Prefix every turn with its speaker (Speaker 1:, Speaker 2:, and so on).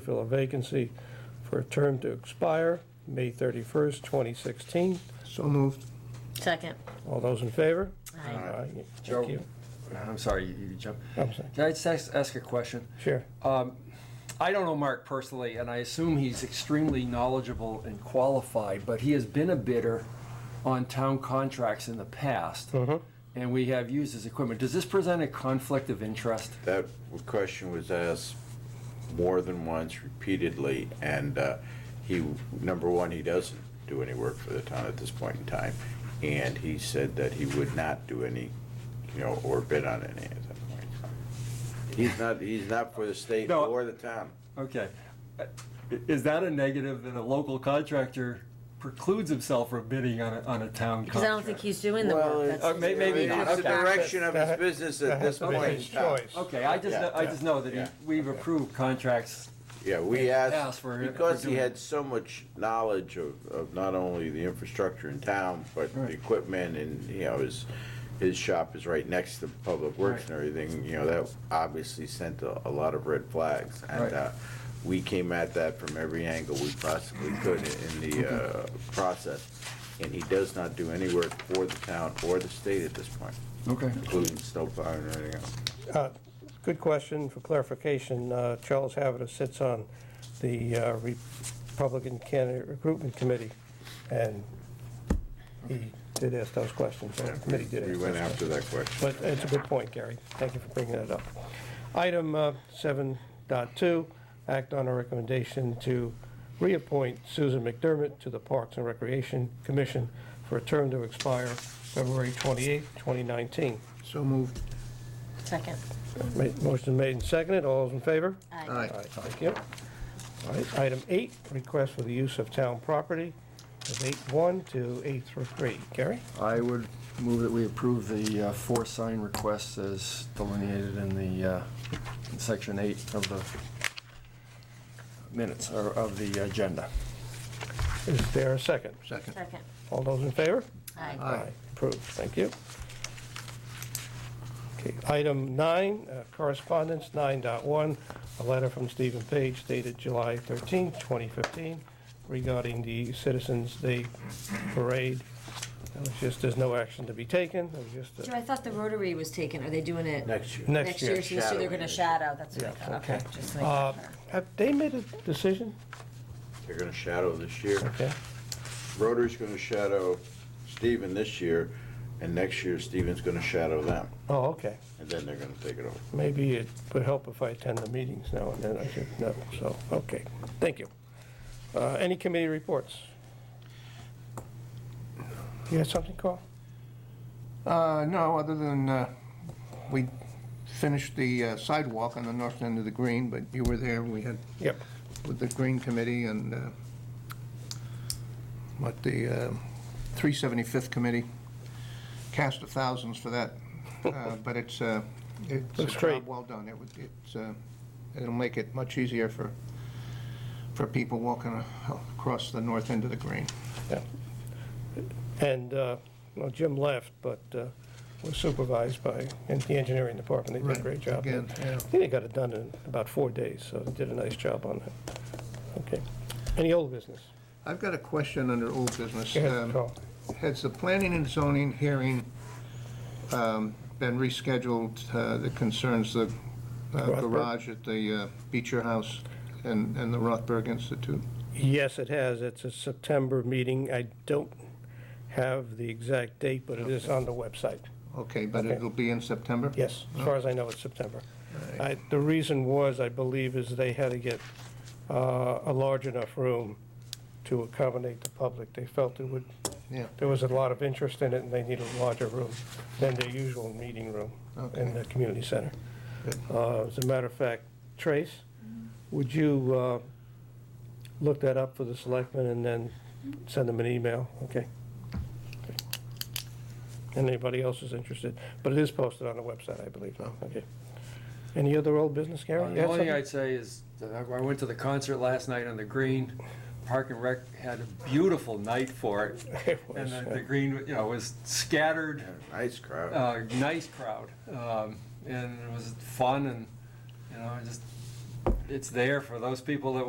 Speaker 1: fill a vacancy for a term to expire May 31st, 2016.
Speaker 2: So moved.
Speaker 3: Second.
Speaker 1: All those in favor?
Speaker 3: Aye.
Speaker 1: Thank
Speaker 4: Joe,
Speaker 1: you.
Speaker 4: I'm sorry, you you jumped.
Speaker 1: I'm sorry.
Speaker 4: Can I just ask ask a question?
Speaker 1: Sure.
Speaker 4: Um, I don't know Mark personally, and I assume he's extremely knowledgeable and qualified, but he has been a bidder on town contracts in the past,
Speaker 1: Mm-hmm.
Speaker 4: and we have used his equipment. Does this present a conflict of interest?
Speaker 5: That question was asked more than once repeatedly, and uh, he, number one, he doesn't do any work for the town at this point in time, and he said that he would not do any, you know, or bid on any at that point in time. He's not, he's not for the state
Speaker 4: No.
Speaker 5: or the town.
Speaker 4: Okay. I- Is that a negative that a local contractor precludes himself from bidding on a, on a town contract?
Speaker 3: Because I don't think he's doing the work. That's-
Speaker 4: uh, may- maybe not.
Speaker 5: It's the
Speaker 4: Okay.
Speaker 5: direction of his business
Speaker 1: That
Speaker 5: at this
Speaker 1: has to be
Speaker 5: point in
Speaker 1: his
Speaker 5: time.
Speaker 1: choice.
Speaker 4: Okay, I just,
Speaker 5: Yeah,
Speaker 4: I just know that he-
Speaker 5: yeah.
Speaker 4: we've approved contracts
Speaker 5: Yeah, we
Speaker 4: asked
Speaker 5: asked,
Speaker 4: for-
Speaker 5: because
Speaker 4: for
Speaker 5: he
Speaker 4: doing-
Speaker 5: had so much knowledge of, of not only the infrastructure in town, but the
Speaker 4: Right.
Speaker 5: equipment and, you know, his, his shop is right next to Public Works and everything, you know, that obviously sent a, a lot of red flags.
Speaker 4: Right.
Speaker 5: And, uh, we came at that from every angle we possibly could in in the, uh, process. And he does not do any work for the town or the state at this point,
Speaker 4: Okay.
Speaker 5: including snowplow and everything else.
Speaker 1: Uh, Good question for clarification. Uh, Charles Havitta sits on the uh, Republican Candidate Recruitment Committee, and he did ask those questions. and The committee did ask
Speaker 5: We
Speaker 1: those
Speaker 5: went
Speaker 1: questions.
Speaker 5: after that question.
Speaker 1: But it's a good point, Gary. Thank you for bringing that up. Item uh, 7.2, act on a recommendation to reappoint Susan McDermott to the Parks and Recreation Commission for a term to expire February 28, 2019.
Speaker 2: So moved.
Speaker 3: Second.
Speaker 1: Ma- Motion made and seconded. All those in favor?
Speaker 3: Aye.
Speaker 1: All right, Thank you. All right, item eight, request for the use of town property of 8.1 to 8.3. Gary?
Speaker 4: I would move that we approve the uh, four sign requests as delineated in the, uh, in section eight of the minutes, or of the agenda.
Speaker 1: Is there a second?
Speaker 2: Second.
Speaker 3: Second.
Speaker 1: All those in favor?
Speaker 3: Aye.
Speaker 2: Aye.
Speaker 1: Approved, thank you. Okay, item nine, uh, correspondence, 9.1, a letter from Stephen Page dated July 13, 2015, regarding the Citizens Day Parade. That was just, there's no action to be taken, it was just
Speaker 3: Joe,
Speaker 1: a-
Speaker 3: I thought the Rotary was taken. Are they doing it?
Speaker 5: Next year.
Speaker 1: next year.
Speaker 3: So this year they're going to shadow. That's what I
Speaker 1: Yeah,
Speaker 3: thought.
Speaker 1: okay.
Speaker 3: Okay. Just like.
Speaker 1: Uh, Have they made a decision?
Speaker 5: They're gonna shadow this year.
Speaker 1: Okay,
Speaker 5: Rotor's gonna shadow Steven this year, and next year Steven's gonna shadow them,
Speaker 1: oh, okay.
Speaker 5: and then they're gonna take it over.
Speaker 1: Maybe it would help if I attend the meetings now and then, I should know, so, okay, thank you. Uh, Any committee reports? You had something, Carl?
Speaker 2: Uh, no, other than, uh, we finished the uh, sidewalk on the north end of the green, but you were there, we had,
Speaker 1: Yep.
Speaker 2: with the green committee and, uh, what, the, uh, 375th committee, cast of thousands for that, Uh, but it's, uh, it's a
Speaker 1: Looks great.
Speaker 2: job well done. It was, it's, uh, it'll make it much easier for, for people walking across the north end of the green.
Speaker 1: yeah. And, uh, well, Jim left, but uh, was supervised by en- the engineering department, they did a great job.
Speaker 2: Again, yeah.
Speaker 1: I think they got it done in about four days, so they did a nice job on that. Okay. Any old business?
Speaker 2: I've got a question under old business.
Speaker 1: Go ahead,
Speaker 2: Um,
Speaker 1: Carl.
Speaker 2: Has the planning and zoning hearing um, been rescheduled uh, that concerns the uh,
Speaker 1: Rothberg?
Speaker 2: garage at the uh, Beecher House and and the Rothberg Institute?
Speaker 1: Yes, it has. It's a September meeting. I don't have the exact date, but it is on the website.
Speaker 2: Okay, but
Speaker 1: Okay.
Speaker 2: it'll be in September?
Speaker 1: Yes, as far as I know, it's September. I- The reason was, I believe, is they had to get uh, a large enough room to accommodate the public. They felt it would,
Speaker 2: Yeah.
Speaker 1: there was a lot of interest in it, and they needed a larger room than their usual meeting room in the community center.
Speaker 2: Good.
Speaker 1: Uh, As a matter of fact, Trace, would you uh, look that up for the selectmen and then send them an email? Okay. And anybody else is interested, but it is posted on the website, I believe, now. Okay. Any other old business, Gary? You
Speaker 4: Uh, The
Speaker 1: had
Speaker 4: only thing
Speaker 1: something?
Speaker 4: I'd say is, that I I went to the concert last night on the green. Park and Rec had a beautiful night for it.
Speaker 1: It
Speaker 4: And
Speaker 1: was,
Speaker 4: the-
Speaker 1: uh,
Speaker 4: the green, you know, was scattered,
Speaker 5: Nice crowd.
Speaker 4: uh, nice crowd. Um, And it was fun and, you know, I just it's there for those people that want